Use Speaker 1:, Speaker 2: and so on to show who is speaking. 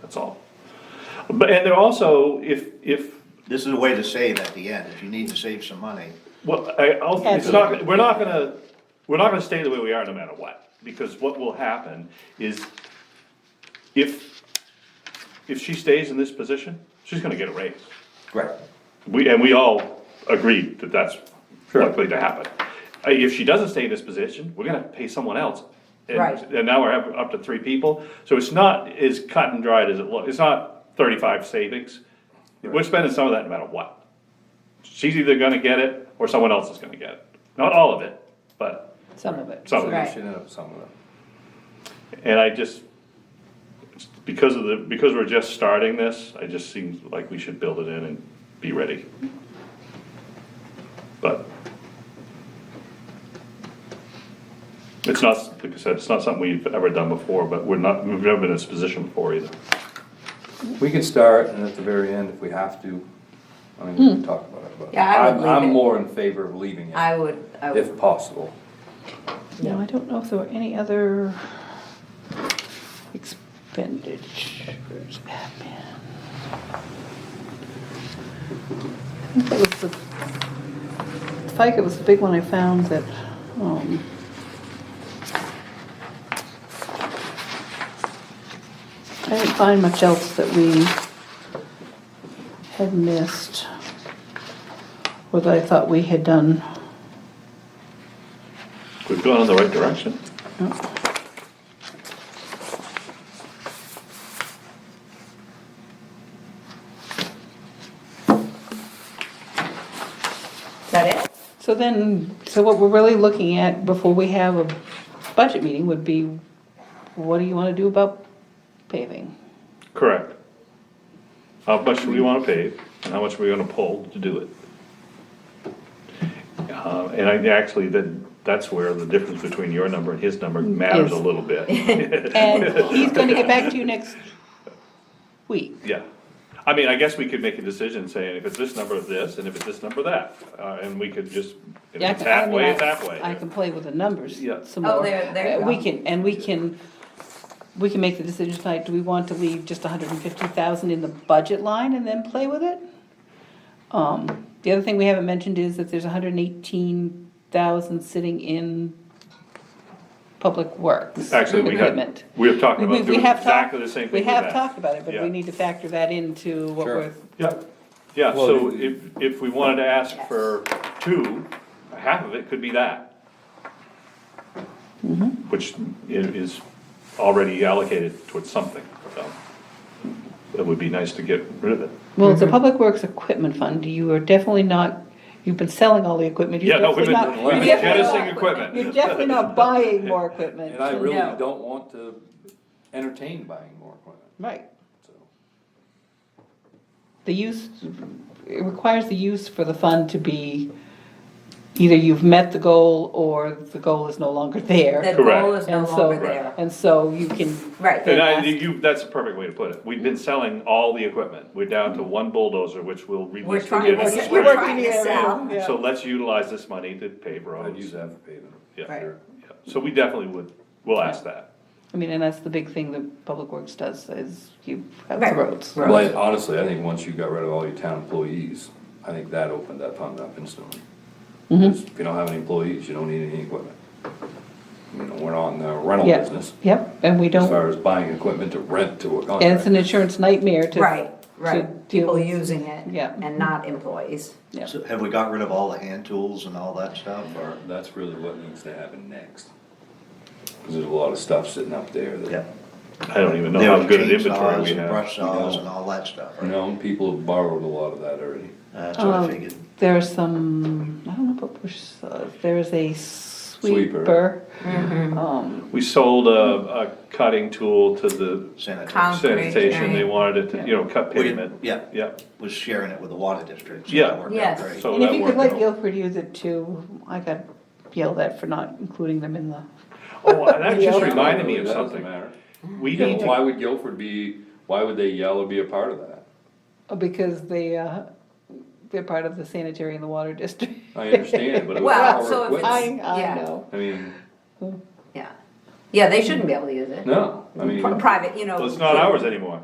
Speaker 1: that's all. But, and they're also, if, if,
Speaker 2: This is a way to save at the end, if you need to save some money.
Speaker 1: well, I, I'll,
Speaker 3: At
Speaker 1: it's
Speaker 3: the
Speaker 1: not, we're not gonna, we're not gonna stay the way we are no matter what, because what will happen is if, if she stays in this position, she's gonna get a raise.
Speaker 2: Right.
Speaker 1: We, and we all agreed that that's likely to happen. Uh, If she doesn't stay in this position, we're gonna pay someone else. And-
Speaker 3: Right.
Speaker 1: And now we're up- up to three people, so it's not as cut and dried as it looks, it's not thirty-five savings. We're spending some of that no matter what. She's either gonna get it, or someone else is gonna get it. Not all of it, but,
Speaker 3: Some of it.
Speaker 1: Some of it.
Speaker 3: Right.
Speaker 4: Should end up some of them.
Speaker 1: and I just, because of the, because we're just starting this, I just seems like we should build it in and be ready. But it's not, like I said, it's not something we've ever done before, but we're not, we've never been in this position before either.
Speaker 4: We can start and at the very end, if we have to, I mean, we can talk about it, but.
Speaker 3: Hmm. Yeah, I would
Speaker 4: I'm-
Speaker 3: leave
Speaker 4: I'm
Speaker 3: it.
Speaker 4: more in favor of leaving it,
Speaker 3: I would, I
Speaker 4: if
Speaker 3: would,
Speaker 4: possible.
Speaker 5: No, I don't know if there were any other expenditures, admin. I think that was the, FICA was the big one I found that, um. I didn't find much else that we had missed, or that I thought we had done.
Speaker 1: We've gone in the right direction.
Speaker 3: is that it?
Speaker 5: So then, so what we're really looking at before we have a budget meeting would be, what do you wanna do about paving?
Speaker 1: Correct. How much do we wanna pave, and how much are we gonna pull to do it? Uh, and I, actually, that, that's where the difference between your number and his number matters a
Speaker 5: Yes.
Speaker 1: little bit.
Speaker 5: And he's gonna get back to you next week.
Speaker 1: Yeah, I mean, I guess we could make a decision saying, if it's this number, this, and if it's this number, that, uh, and we could just, if
Speaker 5: Yeah, I
Speaker 1: it's
Speaker 5: can- I mean,
Speaker 1: halfway, it's
Speaker 5: I-
Speaker 1: halfway.
Speaker 5: I can play with the numbers
Speaker 1: Yeah.
Speaker 5: some
Speaker 3: Oh,
Speaker 5: more.
Speaker 3: there- there you
Speaker 5: Uh, We
Speaker 3: go.
Speaker 5: can, and we can, we can make the decision tonight, do we want to leave just hundred and fifty thousand in the budget line and then play with it? Um, the other thing we haven't mentioned is that there's hundred and eighteen thousand sitting in public works.
Speaker 1: Actually, we had,
Speaker 5: equipment.
Speaker 1: we have talked
Speaker 5: We-
Speaker 1: about
Speaker 5: we
Speaker 1: doing
Speaker 5: have
Speaker 1: exactly
Speaker 5: talked-
Speaker 1: the same thing
Speaker 5: We
Speaker 1: with
Speaker 5: have
Speaker 1: that.
Speaker 5: talked about it, but
Speaker 1: Yeah.
Speaker 5: we need to factor that into what
Speaker 4: Sure.
Speaker 5: we're,
Speaker 1: Yeah, yeah,
Speaker 4: Well,
Speaker 1: so
Speaker 4: you-
Speaker 1: if, if we wanted to ask for two, half of it could be that.
Speaker 4: Mm-hmm.
Speaker 1: Which i- is already allocated towards something, so it would be nice to get rid of it.
Speaker 5: well, it's a public works equipment fund, you are definitely not, you've been selling all the equipment, you're
Speaker 1: Yeah, no, we've
Speaker 5: definitely
Speaker 1: been,
Speaker 5: not.
Speaker 1: we've
Speaker 5: you're
Speaker 1: been
Speaker 5: definitely not-
Speaker 1: jettisoning
Speaker 5: You're
Speaker 1: equipment.
Speaker 5: definitely not buying more equipment.
Speaker 4: And I really
Speaker 3: No.
Speaker 4: don't want to entertain buying more equipment,
Speaker 5: Right,
Speaker 4: so.
Speaker 5: the use, it requires the use for the fund to be, either you've met the goal or the goal is no longer
Speaker 3: The
Speaker 5: there.
Speaker 3: goal is no
Speaker 5: And so,
Speaker 3: longer there.
Speaker 5: and so you can.
Speaker 3: Right.
Speaker 1: And I,
Speaker 5: ask-
Speaker 1: you, that's a perfect way to put it. We've been
Speaker 3: Mm-hmm.
Speaker 1: selling all the equipment. We're down to one bulldozer, which we'll
Speaker 3: We're
Speaker 1: release again
Speaker 3: trying,
Speaker 1: in
Speaker 3: we're
Speaker 1: the
Speaker 5: Yes,
Speaker 3: just-
Speaker 5: we
Speaker 3: we're
Speaker 1: spring.
Speaker 5: worked
Speaker 3: trying
Speaker 5: in
Speaker 3: to
Speaker 5: the area.
Speaker 3: sell.
Speaker 5: Yeah.
Speaker 1: So let's utilize this money to pave roads.
Speaker 4: I'd use that for paving.
Speaker 1: Yeah.
Speaker 3: Right.
Speaker 1: Yeah, so we definitely would, we'll ask that.
Speaker 5: I mean, and that's the big thing that Public Works does, is you have the
Speaker 3: Right.
Speaker 5: roads.
Speaker 3: Right.
Speaker 4: Well, I- honestly, I think once you got rid of all your town employees, I think that opened that fund up instantly.
Speaker 3: Mm-hmm.
Speaker 4: 'Cause If you don't have any employees, you don't need any equipment. You know, we're not in the rental
Speaker 5: Yeah.
Speaker 4: business,
Speaker 5: Yep, and we
Speaker 4: as
Speaker 5: don't,
Speaker 4: far as buying equipment to rent to a
Speaker 5: and it's
Speaker 4: contractor.
Speaker 5: an insurance nightmare to.
Speaker 3: Right,
Speaker 5: to
Speaker 3: right,
Speaker 5: deal
Speaker 3: people
Speaker 5: with.
Speaker 3: using it.
Speaker 5: Yeah.
Speaker 3: And not employees.
Speaker 5: Yeah.
Speaker 2: So Have we got rid of all the hand tools and all that stuff, or?
Speaker 4: That's really what needs to happen next. Cause there's a lot of stuff sitting up there that,
Speaker 1: I don't even know
Speaker 2: There
Speaker 1: how
Speaker 2: were
Speaker 1: good an inventory
Speaker 2: chainsaws
Speaker 1: we
Speaker 2: and
Speaker 1: have.
Speaker 2: brush saws and all that stuff,
Speaker 4: you
Speaker 2: right?
Speaker 4: know, people have borrowed a lot of that already.
Speaker 2: That's what I
Speaker 5: Um,
Speaker 2: figured.
Speaker 5: There are some, I don't know about push saws, there is a
Speaker 4: Sweeper.
Speaker 5: sweeper. Um,
Speaker 1: We sold a, a cutting tool to the
Speaker 2: Sanitary,
Speaker 5: Oh,
Speaker 3: Con- Concrete,
Speaker 1: sanitation, they
Speaker 3: right.
Speaker 1: wanted it to, you know, cut
Speaker 2: We did-
Speaker 1: pavement.
Speaker 2: yeah.
Speaker 1: Yeah,
Speaker 2: was sharing it with the water district, so
Speaker 1: Yeah.
Speaker 2: that worked out
Speaker 3: Yes.
Speaker 2: great.
Speaker 1: so
Speaker 5: and if
Speaker 1: Oh, that
Speaker 5: you could
Speaker 1: worked
Speaker 5: let
Speaker 1: out.
Speaker 5: Guilford use it too, I got yelled at for not including them in the,
Speaker 1: Oh, and that just
Speaker 5: Yeah.
Speaker 1: reminded me
Speaker 4: Really,
Speaker 1: of
Speaker 4: that doesn't
Speaker 1: something.
Speaker 4: matter.
Speaker 1: We
Speaker 4: You
Speaker 1: need
Speaker 4: know,
Speaker 1: to,
Speaker 4: why would Guilford be, why would they yell or be a part of that?
Speaker 5: because they, uh, they're part of the sanitary and the water district.
Speaker 4: I understand, but it was
Speaker 3: Well,
Speaker 4: our
Speaker 3: so if
Speaker 4: equipment.
Speaker 5: I,
Speaker 3: Yeah.
Speaker 5: I know.
Speaker 4: I mean,
Speaker 3: Yeah. Yeah, they shouldn't be able to use it.
Speaker 4: no, I mean.
Speaker 3: Pri- Private, you know.
Speaker 1: well, it's not ours anymore.